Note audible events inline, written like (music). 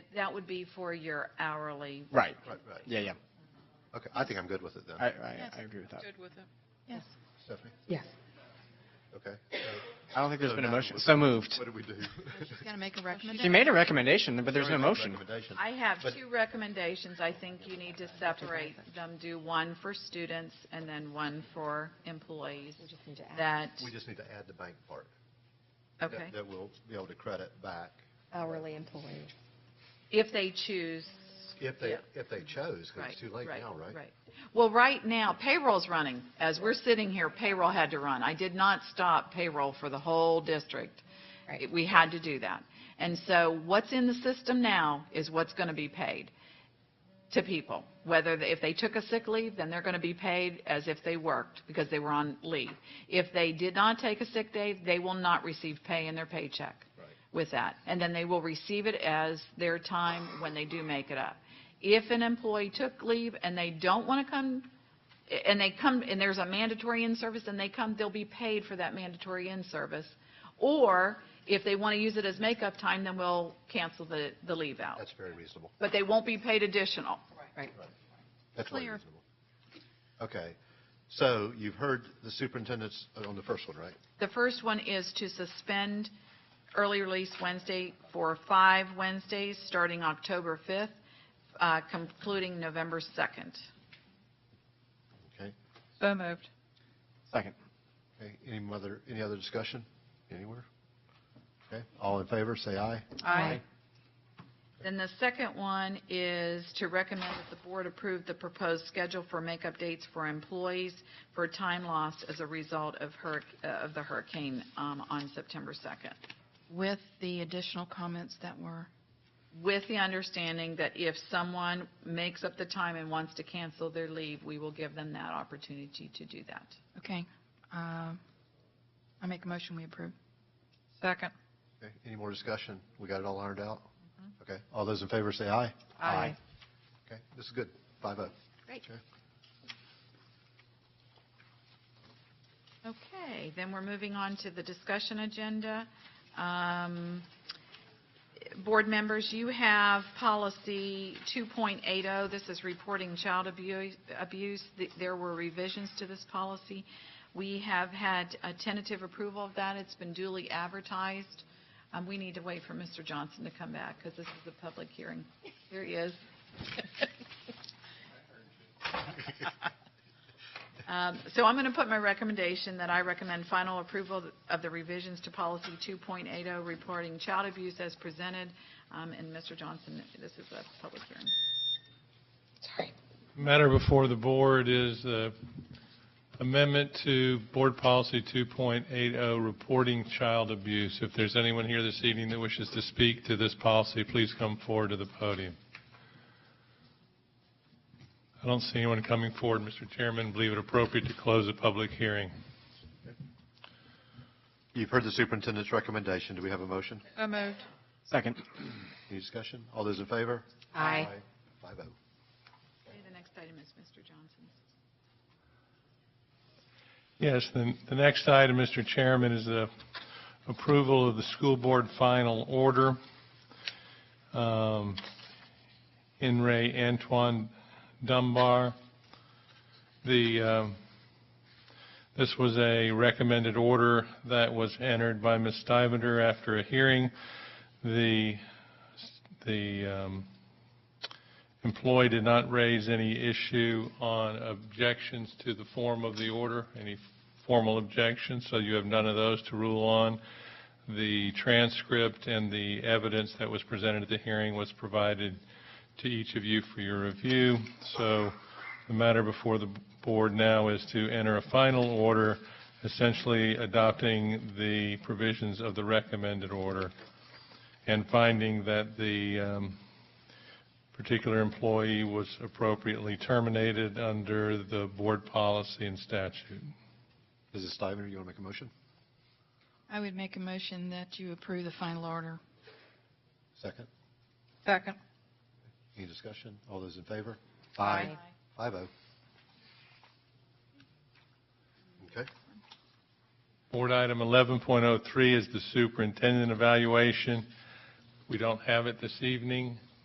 that would be for your hourly. Right. Right, right. Yeah, yeah. Okay, I think I'm good with it then. I, I, I agree with that. Good with it. Yes. Stephanie? Yes. Okay. I don't think there's So been a now motion. what- So moved. What do we do? She's going to make a She recommendation. made a recommendation, but (laughs) there's no Sorry, motion. recommendation. I have But- two recommendations. I think you need to separate them, do one for students and then one for employees. We just need to add. That, We just need to add the bank part. that- okay, That we'll be able to credit back Hourly employees. if they choose. if they, Yeah. if they chose, because it's too late now, right? Right. Well, right now, payroll's running. As we're sitting here, payroll had to run. I did not stop payroll for the whole district. Right. It- We had to do that. And so what's in the system now is what's going to be paid to people. Whether, they- if they took a sick leave, then they're going to be paid as if they worked because they were on leave. If they did not take a sick day, they will not receive pay in their paycheck with that. And then they will receive it as their time when they do make it up. If an employee took leave and they don't want to come, and they come, and there's a mandatory in-service and they come, they'll be paid for that mandatory in-service. Or if they want to use it as makeup time, then we'll cancel the, the leave out. That's very reasonable. But they won't be paid additional. Right. That's very Clear. reasonable. Okay, so you've heard the superintendent's uh, on the first one, right? The first one is to suspend early release Wednesday for five Wednesdays, starting October 5th, uh, concluding November 2nd. Okay, So moved. Second. okay, any other, any other discussion anywhere? Okay, all in favor, say aye. Aye. Then the second one is to recommend that the board approve the proposed schedule for makeup dates for employees for time lost as a result of hurric, uh, of the hurricane um, on September 2nd. With the additional comments that were, With the understanding that if someone makes up the time and wants to cancel their leave, we will give them that opportunity to do that. okay. Um, I make a motion, we approve. Second. Okay, any more discussion? We got it all ironed out? Okay, all those in favor, say aye. Aye. Okay, this is good, five oh. Great. Okay. Okay, then we're moving on to the discussion agenda. Um, Board members, you have policy 2.80. oh. This is reporting child abu- abuse. Th- There were revisions to this policy. We have had a tentative approval of that. It's been duly advertised. Um, We need to wait for Mr. Johnson to come back because this is a public hearing. Here he is. Um, So I'm going to put my recommendation that I recommend final approval of the revisions to policy 2.80, oh, reporting child abuse as presented. Um, And Mr. Johnson, this is a public hearing. Matter before the board is the amendment to Board Policy 2.80, oh, reporting child abuse. If there's anyone here this evening that wishes to speak to this policy, please come forward to the podium. I don't see anyone coming forward, Mr. Chairman. Believe it appropriate to close the public hearing. You've heard the superintendent's recommendation. Do we have a motion? So moved. Second. Any discussion? All those in favor? Aye. Five oh. Okay, The next item is Mr. Johnson's. Yes, the, the next item, Mr. Chairman, is the approval of the school board final order. Um, In re Antoine Dunbar. The, um, this was a recommended order that was entered by Ms. Stivender after a hearing. The, the um, employee did not raise any issue on objections to the form of the order, any formal objections, so you have none of those to rule on. The transcript and the evidence that was presented at the hearing was provided to each of you for your review, so the matter before the board now is to enter a final order, essentially adopting the provisions of the recommended order and finding that the um, particular employee was appropriately terminated under the board policy and statute. Mrs. Steiger, you want to make a motion? I would make a motion that you approve the final order. Second. Second. Any discussion? All those in favor? Aye. Five oh. Okay. Board item 11.03 is the superintendent evaluation. We don't have it this evening.